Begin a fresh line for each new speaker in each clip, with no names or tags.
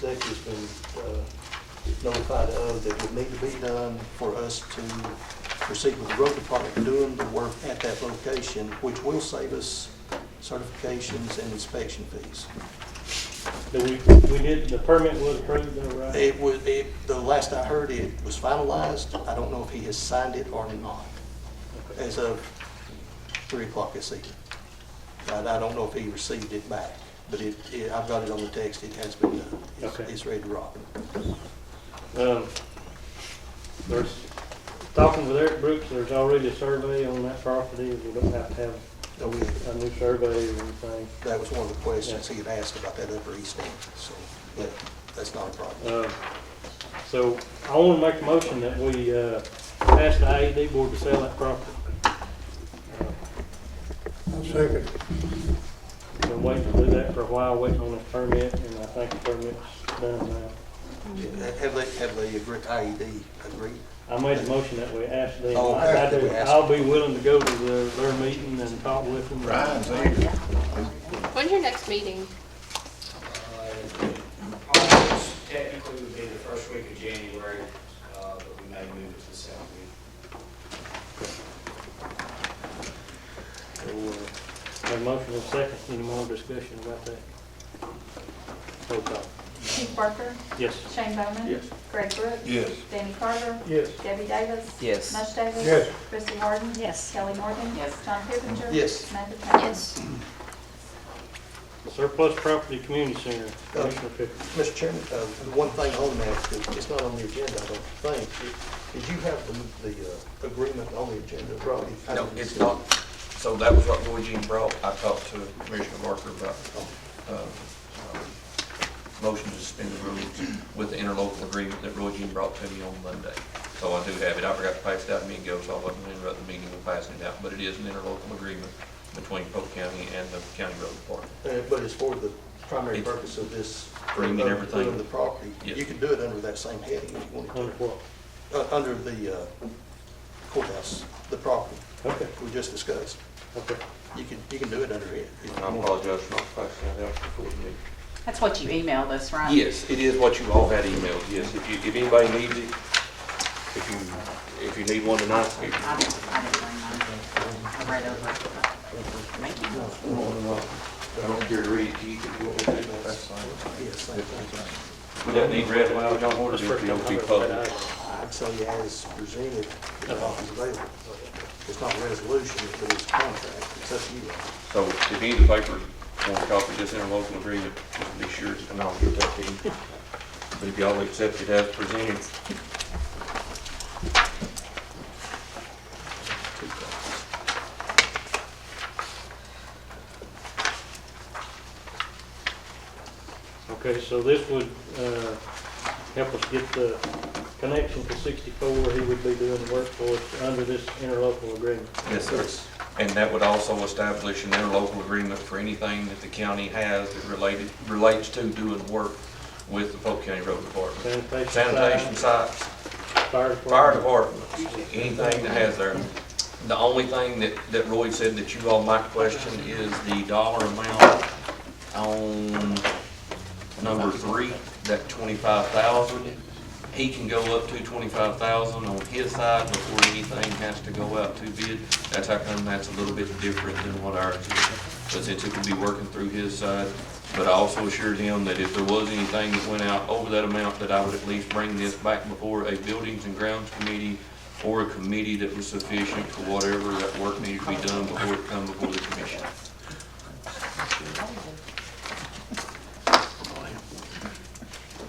executive's been uh, notified of that would need to be done for us to proceed with the road department doing the work at that location, which will save us certifications and inspection fees.
That we, we did, the permit was approved though, right?
It was, it, the last I heard, it was finalized. I don't know if he has signed it or not as of three o'clock this evening. And I don't know if he received it back, but it, it- I've got it on the text. It has been done. It's-
Okay.
It's ready to rock.
Um, There's, talking with Eric Brooks, there's already a survey on that property, we don't have to have
So we-
a new survey or anything.
That was one of the questions he had asked about that upper east end, so, but that's not a problem.
Uh, So I want to make a motion that we uh, ask the AED board to sell that property.
Second.
Been waiting to do that for a while, waiting on this permit, and I think the permit's done now.
Mm-hmm.
Have they, have they agreed, IED agreed?
I made a motion that we ask them.
Oh,
I- I
after we
do-
ask
I'll be willing to go to their, their meeting and talk with them.
Ryan's here.
When's your next meeting?
Uh, August technically would be the first week of January, uh, but we may move it to the second week.
So, uh, Have a motion in a second, any more discussion about that? Roll call.
Keith Parker,
Yes.
Shane Bowman.
Yes.
Greg Brooks.
Yes.
Danny Carver.
Yes.
Debbie Davis.
Yes.
mush Davis.
Yes.
Chrissy Harden.
Yes.
Kelly Morgan. Yes. John Pippinger.
Yes.
Samantha Trent.
Surplus property community center, Commissioner Pickens.
Mr. Chairman, uh, the one thing on that, that it's not on the agenda, I don't think. Did you have the, the uh, agreement on the agenda, Rodney?
No, it's not. So that was what Roy Jean brought. I talked to Commissioner Barker about, uh, um, motion to suspend the rules with the interlocal agreement that Roy Jean brought to me on Monday. So I do have it. I forgot to pass it out a minute ago, so I wasn't gonna interrupt the meeting with passing it out. But it is an interlocal agreement between Polk County and the county road department.
Uh, But it's for the primary
It's-
purpose of this.
Bringing
of
everything.
doing the property.
Yes. Mm-hmm.
You could do it under that same heading if you wanted
Under what?
to, uh, under the uh, courthouse, the property
Okay,
we just discussed.
okay.
You can, you can do it under it. if you
And I
want.
apologize for not passing that out before the meeting.
That's what you emailed us, right?
Yes, it is what you all had emailed, yes. If you, if anybody needs it, if you, if you need one tonight, if
I didn't, I didn't bring mine. I read over it. Thank you.
I don't care to read it, you can go with it. That's fine.
Yeah, same thing.
We don't need read aloud, John Horner,
That's first
if you
time
don't
I've
be
ever
public.
read that.
uh, I'd say as presented, if the office available. It's not a resolution, but it's a contract. It's up to you.
So if any of the papers want a copy of this interlocal agreement, just be sure, to- and I'll give that to you. But if y'all accept it as presented,
Okay, so this would uh, help us get the connection to 64, he would be doing the work for us under this interlocal agreement.
Yes, sir. And that would also establish an interlocal agreement for anything that the county has that related, relates to doing work with the Polk County Road Department.
Sanitation. side,
Sanitation sites,
Fire department.
fire department, anything that has there. The only thing that, that Roy said that you all might question is the dollar amount on number three, that twenty-five thousand. He can go up to twenty-five thousand on his side before anything has to go out to bid. That's how come that's a little bit different than what ours is, but since it could be working through his side. But I also assured him that if there was anything that went out over that amount, that I would at least bring this back before a buildings and grounds committee or a committee that was sufficient for whatever that work needed to be done before it come before the commission.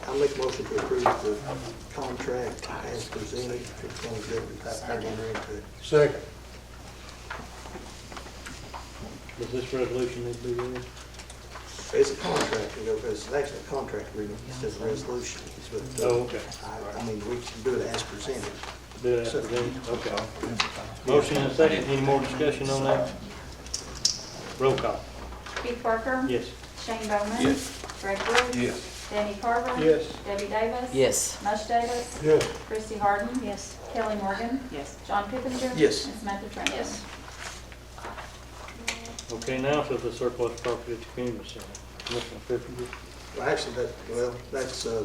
I make a motion to approve the contract as presented for the county government. I've heard enter into it.
Second.
Does this resolution need to be read?
It's a contract, you know, it's actually a contract agreement, it's just a resolution, but,
Oh,
uh,
okay.
I, I mean, we can do it as presented.
Do that, then, okay. Motion and second, any more discussion on that? Roll call.
Keith Parker.
Yes.
Shane Bowman. Yes. Greg Brooks.
Yes.
Danny Carver.
Yes.
Debbie Davis.
Yes.
mush Davis.
Yes.
Chrissy Harden.
Yes.
Kelly Morgan.
Yes.
John Pippinger.
Yes.
And Samantha Trent.
Yes.
Okay, now for the surplus property at the community center. Commissioner Pipkin.
Well, Actually, that, well, that's, uh,